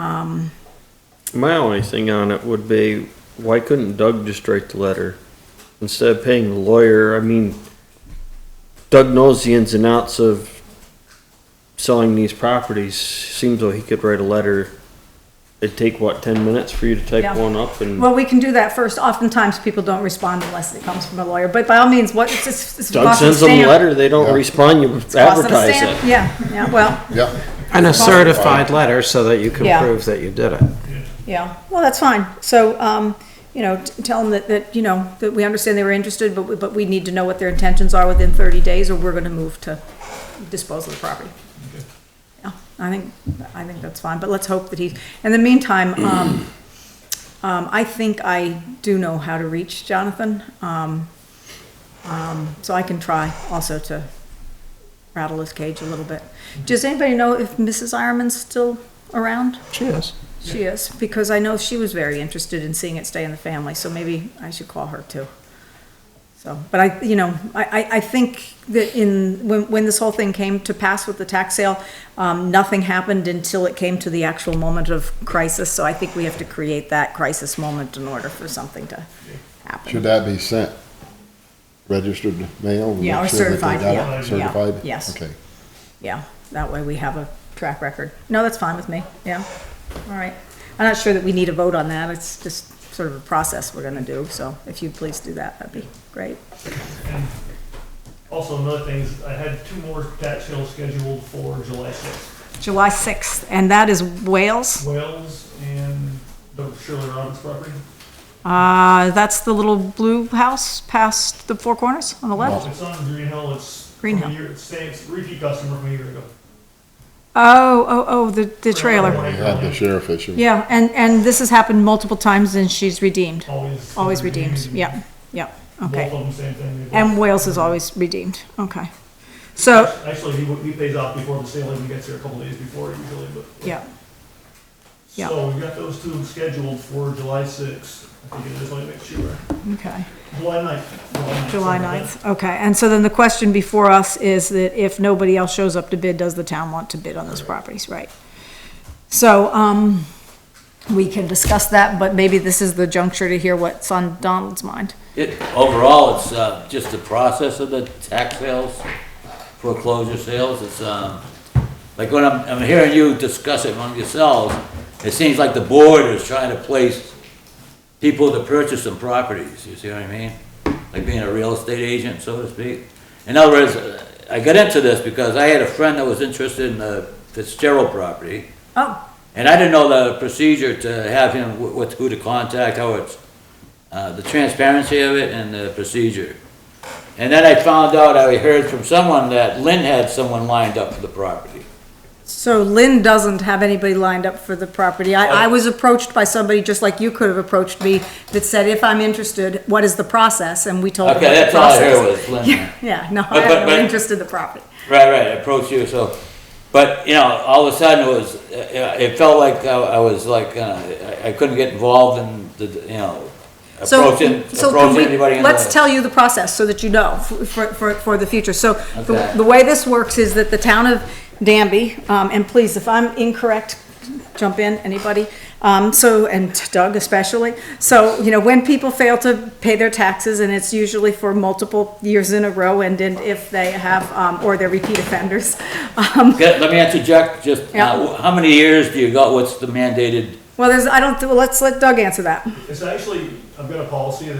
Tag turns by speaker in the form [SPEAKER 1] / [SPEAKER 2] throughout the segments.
[SPEAKER 1] Um,
[SPEAKER 2] My only thing on it would be, why couldn't Doug just write the letter? Instead of paying the lawyer, I mean, Doug knows the ins and outs of selling these properties. Seems though he could write a letter. It'd take, what, ten minutes for you to type
[SPEAKER 1] Yeah.
[SPEAKER 2] one up and
[SPEAKER 1] Well, we can do that first. Oftentimes, people don't respond unless it comes from a lawyer, but by all means, what, it's, it's. it's
[SPEAKER 2] Doug
[SPEAKER 1] cost of
[SPEAKER 2] sends them a
[SPEAKER 1] stamp.
[SPEAKER 2] letter, they don't respond, you
[SPEAKER 1] Cost of a
[SPEAKER 2] advertise
[SPEAKER 1] stamp.
[SPEAKER 2] it.
[SPEAKER 1] Yeah, yeah, well,
[SPEAKER 3] Yeah,
[SPEAKER 4] And a certified letter so that you
[SPEAKER 1] Yeah.
[SPEAKER 4] can prove that you did it.
[SPEAKER 1] yeah, well, that's fine. So, um, you know, t- tell them that, that, you know, that we understand they were interested, but, we- but we need to know what their intentions are within thirty days, or we're gonna move to dispose of the property. Yeah, I think, I think that's fine, but let's hope that he, in the meantime, um, um, I think I do know how to reach Jonathan. Um, um, so I can try also to rattle his cage a little bit. Does anybody know if Mrs. Ironman's still around?
[SPEAKER 4] Cheers.
[SPEAKER 1] She is, because I know she was very interested in seeing it stay in the family, so maybe I should call her too. So, but I, you know, I, I, I think that in, when, when this whole thing came to pass with the tax sale, um, nothing happened until it came to the actual moment of crisis, so I think we have to create that crisis moment in order for something to
[SPEAKER 3] should
[SPEAKER 1] happen.
[SPEAKER 3] that be sent registered mail? to
[SPEAKER 1] Yeah,
[SPEAKER 3] make
[SPEAKER 1] or
[SPEAKER 3] sure that they
[SPEAKER 1] certified,
[SPEAKER 3] got it?
[SPEAKER 1] yeah, yeah,
[SPEAKER 3] Certified?
[SPEAKER 1] yes.
[SPEAKER 3] Okay.
[SPEAKER 1] Yeah, that way we have a track record. No, that's fine with me, yeah, all right. I'm not sure that we need a vote on that, it's just sort of a process we're gonna do, so if you'd please do that, that'd be great.
[SPEAKER 5] And Also, another thing is, I had two more tax sales scheduled for July sixth.
[SPEAKER 1] July 6th, and that is Wales.
[SPEAKER 5] Wells and the Shirley Robbins property.
[SPEAKER 1] Uh, that's the little blue house past the Four Corners on the left.
[SPEAKER 5] It's on Green Hill, it's.
[SPEAKER 1] Green
[SPEAKER 5] from a
[SPEAKER 1] Hill.
[SPEAKER 5] year- It's same, it's repeat customer from a year ago.
[SPEAKER 1] Oh, oh, oh, the, the
[SPEAKER 3] We
[SPEAKER 1] trailer.
[SPEAKER 3] had the sheriff issue.
[SPEAKER 1] Yeah, and, and this has happened multiple times and she's redeemed.
[SPEAKER 5] Always.
[SPEAKER 1] Always redeemed, yeah, yeah,
[SPEAKER 5] Both
[SPEAKER 1] okay.
[SPEAKER 5] of them, same thing. They
[SPEAKER 1] And Wales is always redeemed, okay. So,
[SPEAKER 5] both- Actually, he, he pays off before the sale even gets here, a couple days before usually, but.
[SPEAKER 1] yeah, yeah.
[SPEAKER 5] So we've got those two scheduled for July sixth. I think it is, let me make sure.
[SPEAKER 1] okay.
[SPEAKER 5] July ninth.
[SPEAKER 1] July
[SPEAKER 5] sorry about that.
[SPEAKER 1] 9th, okay. And so then the question before us is that if nobody else shows up to bid, does the town want to bid on those properties, right? So, um, we can discuss that, but maybe this is the juncture to hear what's on Donald's mind.
[SPEAKER 6] It, overall, it's, uh, just the process of the tax sales, foreclosure sales, it's, um, like when I'm, I'm hearing you discuss it among yourselves, it seems like the board is trying to place people to purchase some properties, you see what I mean? Like being a real estate agent, so to speak. In other words, I got into this because I had a friend that was interested in the Fitzgerald property.
[SPEAKER 1] Oh,
[SPEAKER 6] And I didn't know the procedure to have him, wh- what, who to contact, how it's, uh, the transparency of it and the procedure. And then I found out, I heard from someone that Lynn had someone lined up for the property.
[SPEAKER 1] so Lynn doesn't have anybody lined up for the property. I, I
[SPEAKER 6] Oh.
[SPEAKER 1] was approached by somebody, just like you could have approached me, that said, if I'm interested, what is the process? And we told them.
[SPEAKER 6] Okay,
[SPEAKER 1] what Oh, the
[SPEAKER 6] that's all I heard
[SPEAKER 1] process-
[SPEAKER 6] was Lynn.
[SPEAKER 1] Yeah, no, I
[SPEAKER 6] But- but-
[SPEAKER 1] have no
[SPEAKER 6] but-
[SPEAKER 1] interest in the property.
[SPEAKER 6] Right, right, approach you, so, but, you know, all of a sudden it was, uh, it felt like I I was like, uh, I- I couldn't get involved in the, you know,
[SPEAKER 1] So,
[SPEAKER 6] approaching,
[SPEAKER 1] so can
[SPEAKER 6] approaching
[SPEAKER 1] we-
[SPEAKER 6] anybody in the.
[SPEAKER 1] Let's tell you the process so that you know f- for, for, for the future. So the,
[SPEAKER 6] Okay.
[SPEAKER 1] the way this works is that the town of Danby, um, and please, if I'm incorrect, jump in, anybody. Um, so, and Doug especially. So, you know, when people fail to pay their taxes and it's usually for multiple years in a row and then if they have, um, or they're repeat offenders. Um,
[SPEAKER 6] Okay, Let me interject, just, uh,
[SPEAKER 1] Yeah.
[SPEAKER 6] wh- how many years do you got, what's the mandated
[SPEAKER 1] well, there's, I don't, well, let's let Doug answer that.
[SPEAKER 5] It's actually, I've got a policy that,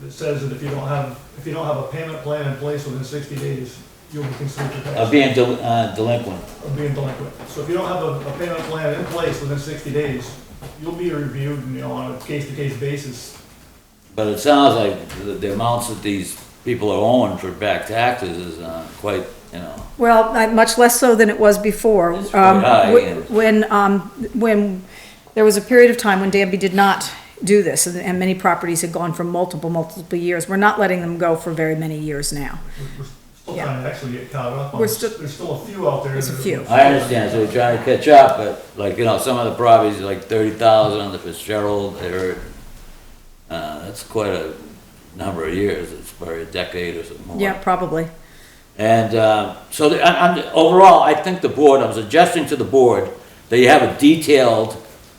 [SPEAKER 5] that says that if you don't have, if you don't have a payment plan in place within sixty days, you'll be considered to
[SPEAKER 6] of
[SPEAKER 5] pass,
[SPEAKER 6] being del- uh, delinquent.
[SPEAKER 5] of being delinquent. So if you don't have a, a payment plan in place within sixty days, you'll be reviewed, you know, on a case-to-case basis.
[SPEAKER 6] But it sounds like the, the amounts that these people are owing for back taxes is uh, quite, you know,
[SPEAKER 1] Well, I- much less so than it was before.
[SPEAKER 6] It's
[SPEAKER 1] Um,
[SPEAKER 6] quite high,
[SPEAKER 1] whe-
[SPEAKER 6] and-
[SPEAKER 1] When, um, when, there was a period of time when Danby did not do this, and- and many properties had gone for multiple, multiple years. We're not letting them go for very many years now.
[SPEAKER 5] We're- We're still
[SPEAKER 1] Yeah.
[SPEAKER 5] trying to actually get caught up on
[SPEAKER 1] We're
[SPEAKER 5] this.
[SPEAKER 1] still-
[SPEAKER 5] There's still a few out there.
[SPEAKER 1] There's a
[SPEAKER 5] that-
[SPEAKER 1] few.
[SPEAKER 6] I understand, so we're trying to catch up, but like, you know, some of the properties, like thirty thousand on the Fitzgerald, they're, uh, that's quite a number of years, it's probably a decade or something more.
[SPEAKER 1] Yeah, probably.
[SPEAKER 6] And uh, so, the- I- I'm- overall, I think the board, I'm suggesting to the board that you have a detailed